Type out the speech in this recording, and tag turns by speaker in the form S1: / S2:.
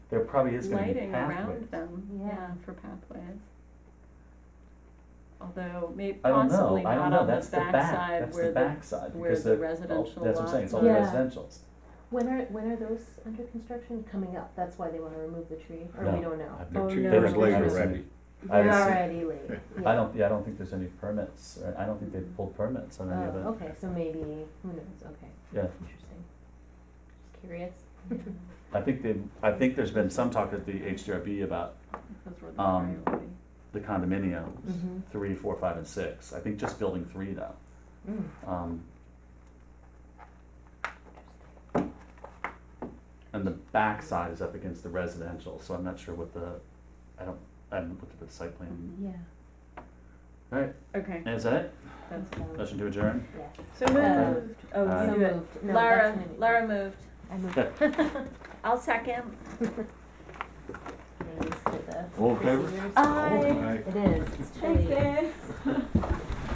S1: there probably is gonna be
S2: lighting
S1: pathways.
S2: around them,
S3: Yeah.
S2: yeah, for pathways. Although maybe
S1: I don't know,
S2: possibly
S1: I don't
S2: not
S1: know,
S2: on the
S1: that's the back,
S2: backside
S1: that's the
S2: where the,
S1: backside,
S2: where
S1: because
S2: the
S1: the, all-
S2: residential
S1: that's what I'm saying,
S2: lots
S1: it's all
S2: are.
S3: Yeah.
S1: residentials.
S3: When are, when are those under construction coming up? That's why they wanna remove the tree, or
S1: No.
S3: we don't know?
S4: They're
S2: Oh,
S4: two
S2: no.
S4: years late
S1: There's-
S4: already.
S1: I
S3: They're
S1: haven't seen-
S3: already late, yeah.
S1: I don't, yeah, I don't think there's any permits, or I don't think they've pulled permits on any of
S3: Oh,
S1: it,
S3: okay, so maybe, who knows, okay,
S1: yeah.
S3: interesting. Just curious.
S2: Mm.
S1: I think they, I think there's been some talk at the HDRB about
S2: Those were the
S1: Um,
S2: priority.
S1: the condominiums,
S2: Mm-hmm.
S3: Mhm.
S1: three, four, five, and six, I think just building three though.
S3: Mm,
S1: Um, and the backside is up against the residential, so I'm not sure what the, I don't, I haven't looked at the site plan.
S3: Yeah.
S1: Alright,
S2: Okay,
S1: is that it?
S2: that's,
S3: valid.
S1: Motion to adjourn?
S3: Yes.
S2: so
S3: Uh,
S2: moved, oh,
S1: Aye.
S2: you
S3: So
S2: do it.
S3: moved. No,
S2: Lara,
S3: that's my-
S2: Lara moved,
S3: I moved.
S1: Yeah.
S2: second.
S3: Thanks to the
S4: All in favor?
S3: procedures.
S1: Oh.
S2: Aye.
S4: Aye.
S3: It is, it's
S2: Oh, Thanks,
S3: chilly.
S2: Dave.